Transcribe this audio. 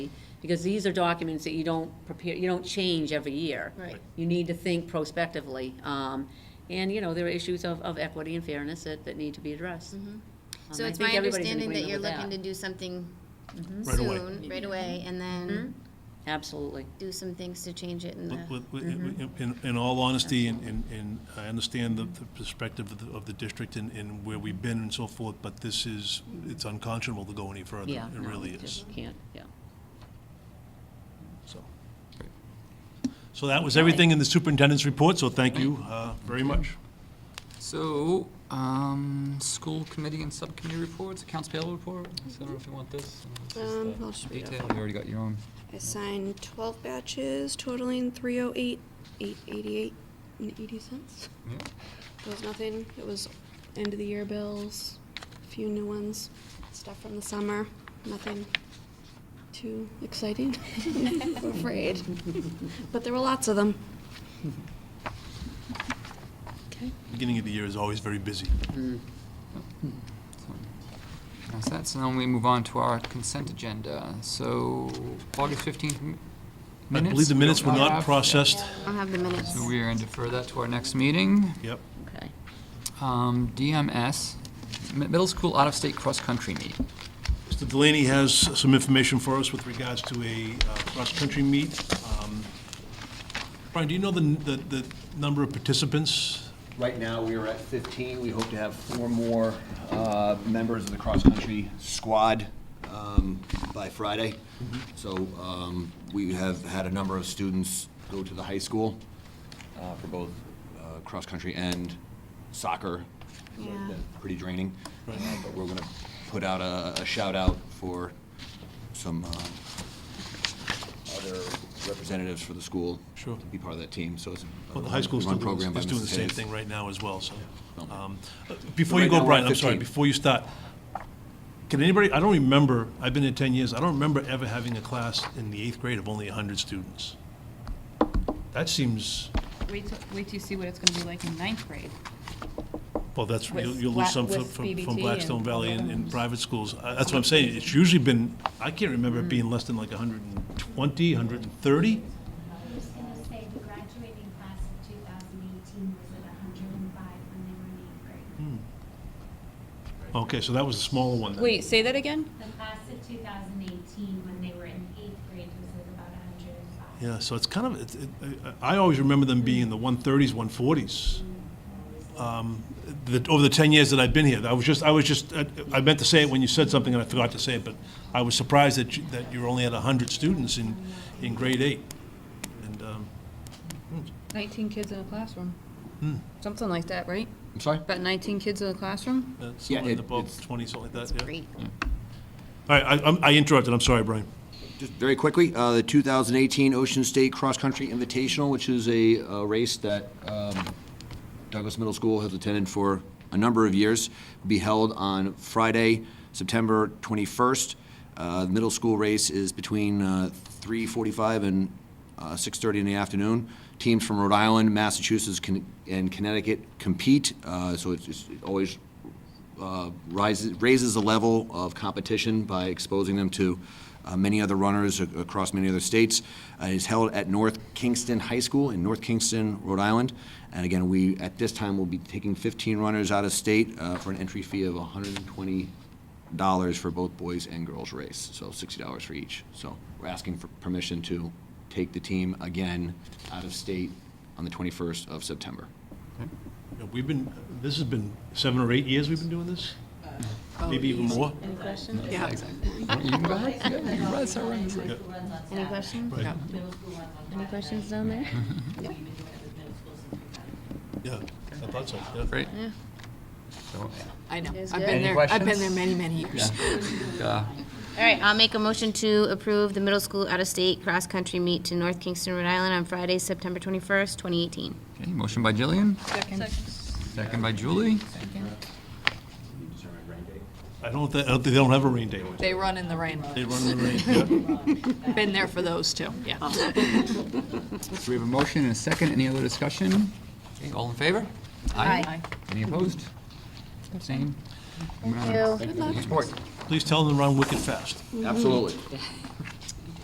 Because these are documents that you don't prepare, you don't change every year. Right. You need to think prospectively. Um, And, you know, there are issues of, of equity and fairness that, that need to be addressed. Um, Mm-hmm. So I it's think my everybody's in understanding that Mm-hmm. agreement you're with looking to do something Right away. soon, right away, and then Absolutely. do some things to change it in With- the, with- with- Mm-hmm. In, in all honesty, and, and- and I understand the the perspective of the, of the district and, and where we've been and so forth, but this is, it's unconscionable to go any further. Yeah. It no, really you is, just Can't, yeah. so. So that was everything in the superintendent's report, so thank you uh, very much. So, um, school committee and subcommittee reports, accounts payable report, so I don't know if you want this. and it's just Um, the I'll just read it Detail, you already got your own. I signed twelve batches totaling three oh eight, eight eighty-eight and eighty cents. Yeah. It was nothing, it was end of the year bills, a few new ones, stuff from the summer, nothing too exciting, I'm afraid. But there were lots of them. Beginning of the year is always very busy. So, That's that, so now we move on to our consent agenda, so August fifteenth minutes. I believe the we minutes don't were not have. processed. I don't have the minutes. So we are going to defer that to our next meeting. Yep. Okay. Um, DMS, mi- middle school out-of-state cross-country meeting. Mr. Delaney has some information for us with regards to a uh, cross-country meet. Um, Brian, do you know the, the, the number of participants? Right now, we are at 15. We hope to have four more uh, members of the cross-country squad um, by Friday. Mm-hmm. So um, we have had a number of students go to the high school uh, for both uh, cross-country and soccer. So it's Yeah. been Pretty draining. Uh, But we're going to put out a a shout-out for some uh, other representatives for the school. Sure. To be part of that team, so it's. a Well, the high school run still doing- program by is doing Mrs. the same Hayes. thing right now as well, so. Okay. um, uh, Before you Right now, go, we're Brian, at I'm sorry, 15. before you start, can anybody, I don't remember, I've been here 10 years, I don't remember ever having a class in the eighth grade of only 100 students. That seems, Wait till, wait till you see what it's gonna be like in ninth grade. well, that's, you'll With you'll lose Bla- some from- with from BBT from and Blackstone Valley and and others. private schools. Uh, That's what I'm saying, it's usually been, I can't remember it Mm. being less than like 120, 130? I was gonna say the graduating class of two thousand eighteen was at hundred and five when they were in eighth grade. Okay, so that was a smaller one then. Wait, say that again? The class of two thousand eighteen, when they were in eighth grade, was at about hundred and five. Yeah, so it's kind of, it's- it- I I always remember them being in the 130s, 140s. Um, the- Over the 10 years that I've been here, I was just, I was just, I- I meant to say it when you said something and I forgot to say it, but I was surprised that you- that you're only at 100 students in, in grade eight. And um, Nineteen kids in a classroom. Something like that, right? I'm sorry? About nineteen kids in a classroom? that's Yeah, somewhere in the it- above it's- 20, something like that, yeah. Great. All right, I- I'm- I interrupted, I'm sorry, Brian. Just very quickly, uh, the 2018 Ocean State Cross Country Invitational, which is a a race that um, Douglas Middle School has attended for a number of years, will be held on Friday, September 21st. Uh, The middle school race is between uh, 3:45 and uh, 6:30 in the afternoon. Teams from Rhode Island, Massachusetts, Con- and Connecticut compete, uh, so it's it's always uh, rises, raises the level of competition by exposing them to uh, many other runners ac- across many other states. Uh, It is held at North Kingston High School in North Kingston, Rhode Island. And again, we, at this time, will be taking 15 runners out of state uh, for an entry fee of $120 for both boys and girls race, so $60 for each. So we're asking for permission to take the team again out of state on the 21st of September. Yeah, We've been, this has been seven or eight years we've been doing this? Maybe even more? Yeah. You can go ahead. Yeah, you can run, start running. Any questions? Right. Any questions down there? Yeah, I thought so, yeah. Great. I know. It's I've good. Any been there, I've been there many, questions? many years. Uh, All right, I'll make a motion to approve the middle school out-of-state cross-country meet to North Kingston, Rhode Island on Friday, September twenty-first, twenty eighteen. Okay, motion by Jillian, second by Julie. I don't, thi- I don't think- they don't have a rain date. They run in the rain. They run in the rain, yeah. Been there for those too, yeah. So we have a motion and a second. Any other discussion? Okay, all in favor? Aye. Any opposed? Abstained? Moving on. you. Thank you for your support. Please tell them to run wicked fast. Absolutely.